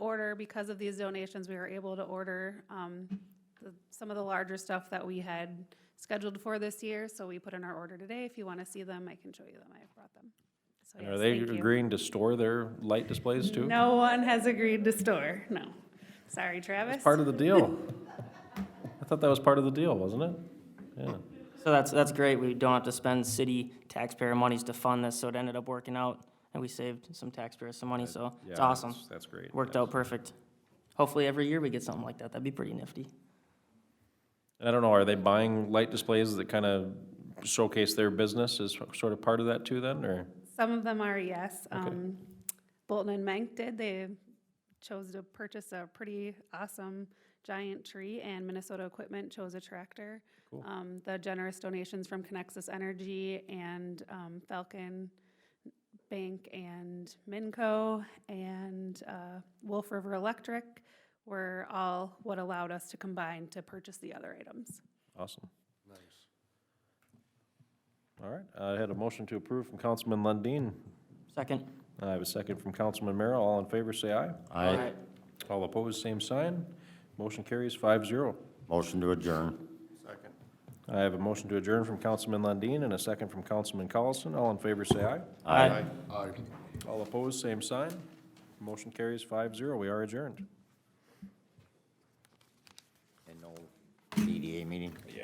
because of these donations, we were able to order um, the- some of the larger stuff that we had scheduled for this year, so we put in our order today. If you want to see them, I can show you them. I brought them. So And yes, are they thank you. agreeing to store their light displays too? No one has agreed to store, no. Sorry, Travis. Part of the deal. I thought that was part of the deal, wasn't it? Yeah. So that's, that's great. We don't have to spend city taxpayer monies to fund this, so it ended up working out, and we saved some taxpayers some money, so it's Yeah, awesome. that's- That's great. Worked out perfect. Hopefully, every year we get something like that. That'd be pretty nifty. And I don't know, are they buying light displays that kind of showcase their business as sort of part of that too then, or? Some of them are, yes. Um, Bolton and Mank did, they chose to purchase a pretty awesome giant tree, and Minnesota Equipment chose a tractor. Um, The generous donations from Conexus Energy and um, Falcon Bank and Minco and uh, Wolf River Electric were all what allowed us to combine to purchase the other items. Awesome. Nice. All right, I had a motion to approve from Councilman Lundin. Second. I have a second from Councilman Merrill. All in favor, say aye. Aye. All opposed, same sign. Motion carries five zero. Motion to adjourn. I have a motion to adjourn from Councilman Lundin and a second from Councilman Collison. All in favor, say aye. Aye. All opposed, same sign. Motion carries five zero. We are adjourned. And no DDA meeting?